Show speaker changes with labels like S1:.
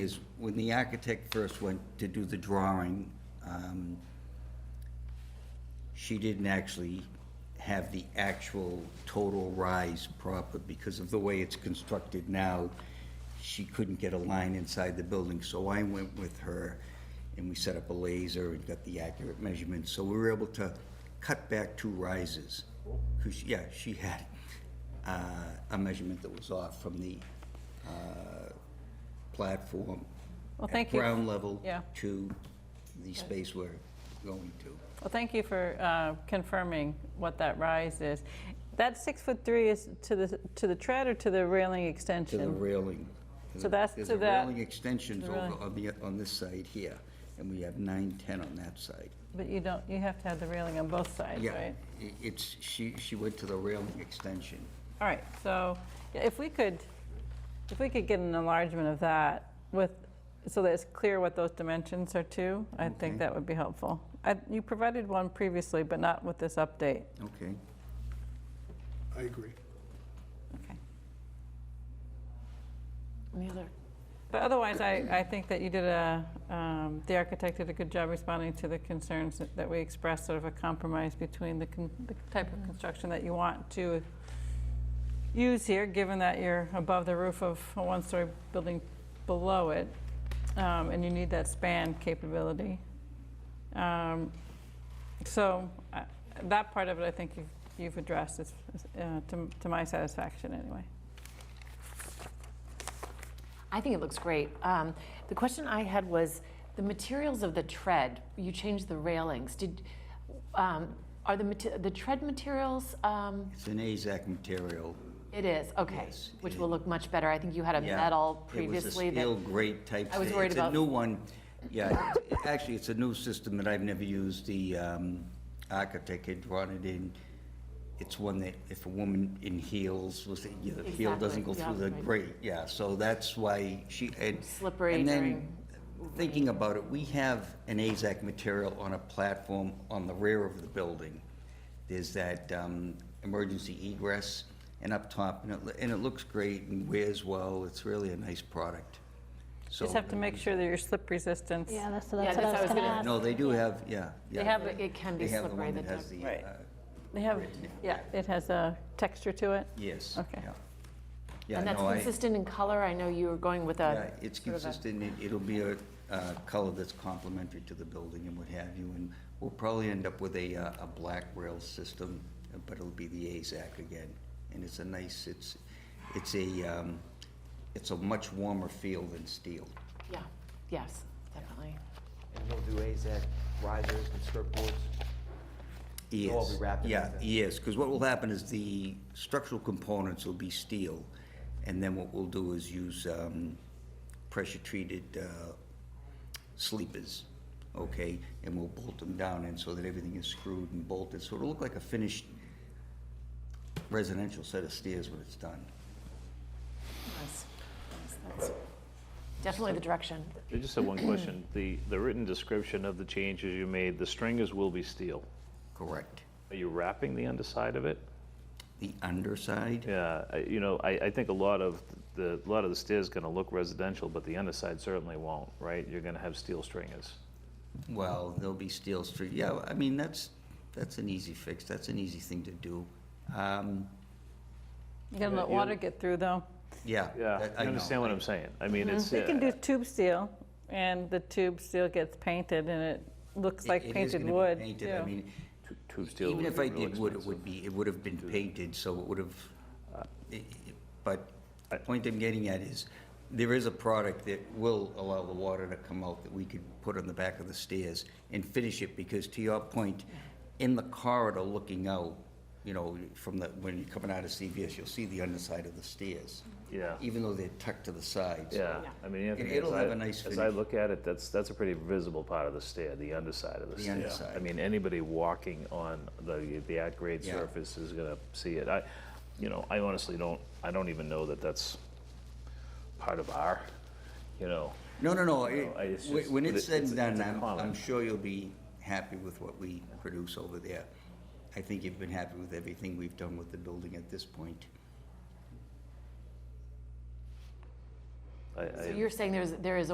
S1: is when the architect first went to do the drawing, um, she didn't actually have the actual total rise proper because of the way it's constructed now. She couldn't get a line inside the building, so I went with her and we set up a laser and got the accurate measurements. So we were able to cut back two rises. Because, yeah, she had uh, a measurement that was off from the uh, platform.
S2: Well,
S1: at
S2: thank you.
S1: Ground level
S2: Yeah.
S1: to the space we're going to.
S2: Well, thank you for uh, confirming what that rise is. That six foot three is to the, to the tread or to the railing
S1: to the
S2: extension?
S1: railing.
S2: So that's
S1: There's
S2: to
S1: a
S2: that-
S1: railing extensions
S2: the
S1: over
S2: railing.
S1: on the, on this side here, and we have nine, ten on that side.
S2: But you don't, you have to have the railing on both sides,
S1: Yeah,
S2: right?
S1: i- it's, she, she went to the railing extension.
S2: All right, so yeah, if we could, if we could get an enlargement of that with, so that it's clear what those dimensions are to, I think that would be helpful. I- You provided one previously, but not with this update.
S1: Okay.
S3: I agree.
S2: Okay.
S4: Any other?
S2: But otherwise, I, I think that you did a, um, the architect did a good job responding to the concerns that- that we expressed, sort of a compromise between the, con- the type of construction that you want to use here, given that you're above the roof of a one-story building below it, um, and you need that span capability. Um, So uh, that part of it, I think you've, you've addressed, it's, uh, to, to my satisfaction, anyway.
S4: I think it looks great. Um, the question I had was the materials of the tread. You changed the railings. Did um, are the mate- the tread materials? Um,
S1: It's an AZAC material.
S4: it is okay,
S1: Yes,
S4: which
S1: it-
S4: will look much better. I think you had a
S1: Yeah,
S4: metal
S1: It
S4: previously.
S1: was a steel grate type.
S4: I was
S1: thing.
S4: worried
S1: It's
S4: about-
S1: a new one. Yeah, it's- actually, it's a new system that I've never used. The um, architect had drawn it in. It's one that if a woman in heels was, yeah, the heel doesn't go
S4: Exactly,
S1: through
S4: yeah,
S1: the
S4: right.
S1: grate. Yeah, so that's why she, and.
S4: Slippery
S1: and then
S4: during-
S1: Thinking about it, we have an AZAC material on a platform on the rear of the building. There's that um, emergency egress and up top, and it, lo- and it looks great and wears well. It's really a nice product. So
S2: Just have to make sure that your slip resistance
S5: Yeah, that's,
S4: Yeah,
S5: that's what I was gonna ask.
S1: uh, No, they do have, yeah, yeah.
S2: They have
S4: it, it can be
S1: They have the
S4: slippery.
S1: one
S4: The
S1: that has
S4: duct-
S1: the,
S2: Right.
S1: uh,
S2: They have,
S1: Written,
S2: yeah, it has a texture to it.
S1: yes.
S2: Okay.
S1: yeah. Yeah,
S4: and that's
S1: no, I-
S4: consistent in color. I know you were going with
S1: Yeah,
S4: a.
S1: it's
S4: sort of a-
S1: consistent, It- it'll be a uh, color that's complementary to the building and what have you, and we'll probably end up with a, uh, a black rail system, uh, but it'll be the AZAC again, and it's a nice, it's, it's a, um, it's a much warmer feel than steel.
S4: yeah. Yes. Definitely.
S6: And we'll do AZAC risers and skirt boards. They'll all be
S1: Yes,
S6: wrapped in
S1: yeah,
S6: AZAC.
S1: yes, because what will happen is the structural components will be steel, and then what we'll do is use um, pressure-treated uh, sleepers, okay? And we'll bolt them down in so that everything is screwed and bolted, so it'll look like a finished residential set of stairs when it's done.
S4: Yes. Yes, that's definitely the direction.
S7: I just have one question. The, the written description of the changes you made, the stringers will be steel.
S1: Correct.
S7: Are you wrapping the underside of it?
S1: The underside,
S7: Yeah, I- you know, I, I think a lot of the, a lot of the stairs gonna look residential, but the underside certainly won't, right? You're gonna have steel stringers.
S1: well, there'll be steel street, yeah, I mean, that's, that's an easy fix, that's an easy thing to do. Um,
S2: You gotta let
S7: Yeah, you-
S2: water get through, though.
S1: Yeah.
S7: Yeah,
S1: that- I
S7: you
S1: know.
S7: understand what I'm saying? I mean, it's.
S2: You Mm-hmm. can
S7: uh,
S2: do tube steel, and the tube steel gets painted, and it looks
S1: It- it
S2: like
S1: is
S2: painted
S1: gonna be
S2: wood,
S1: painted. I
S2: too.
S1: mean,
S7: tu- Tube steel
S1: even
S7: would
S1: if
S7: be
S1: I
S7: really
S1: did wood, it
S7: expensive.
S1: would be, it would have been painted, so it would have, i- i- but the point I'm getting at is, there is a product that will allow the water to come out that we could put on the back of the stairs and finish it, because to your point, in the corridor looking out, you know, from the, when you're coming out of CVS, you'll see the underside of the stairs.
S7: Yeah.
S1: Even though they're tucked to the sides.
S7: Yeah, I mean, Anthony, as
S1: it'll have
S7: I-
S1: a nice
S7: as I
S1: finish.
S7: look at it, that's, that's a pretty visible part of the stair, the underside of the
S1: The
S7: stair. I
S1: underside.
S7: mean, anybody walking on the, the at-grade
S1: Yeah.
S7: surface is gonna see it. I, you know, I honestly don't, I don't even know that that's part of our, you know.
S1: No, no, no.
S7: No, I- it's
S1: it- whe-
S7: just-
S1: When
S7: but
S1: it's
S7: it-
S1: said
S7: it's-
S1: and done,
S7: it's a
S1: I'm, I'm
S7: comment.
S1: sure you'll be happy with what we produce over there. I think you've been happy with everything we've done with the building at this point.
S7: I- I-
S4: So you're saying there's there is a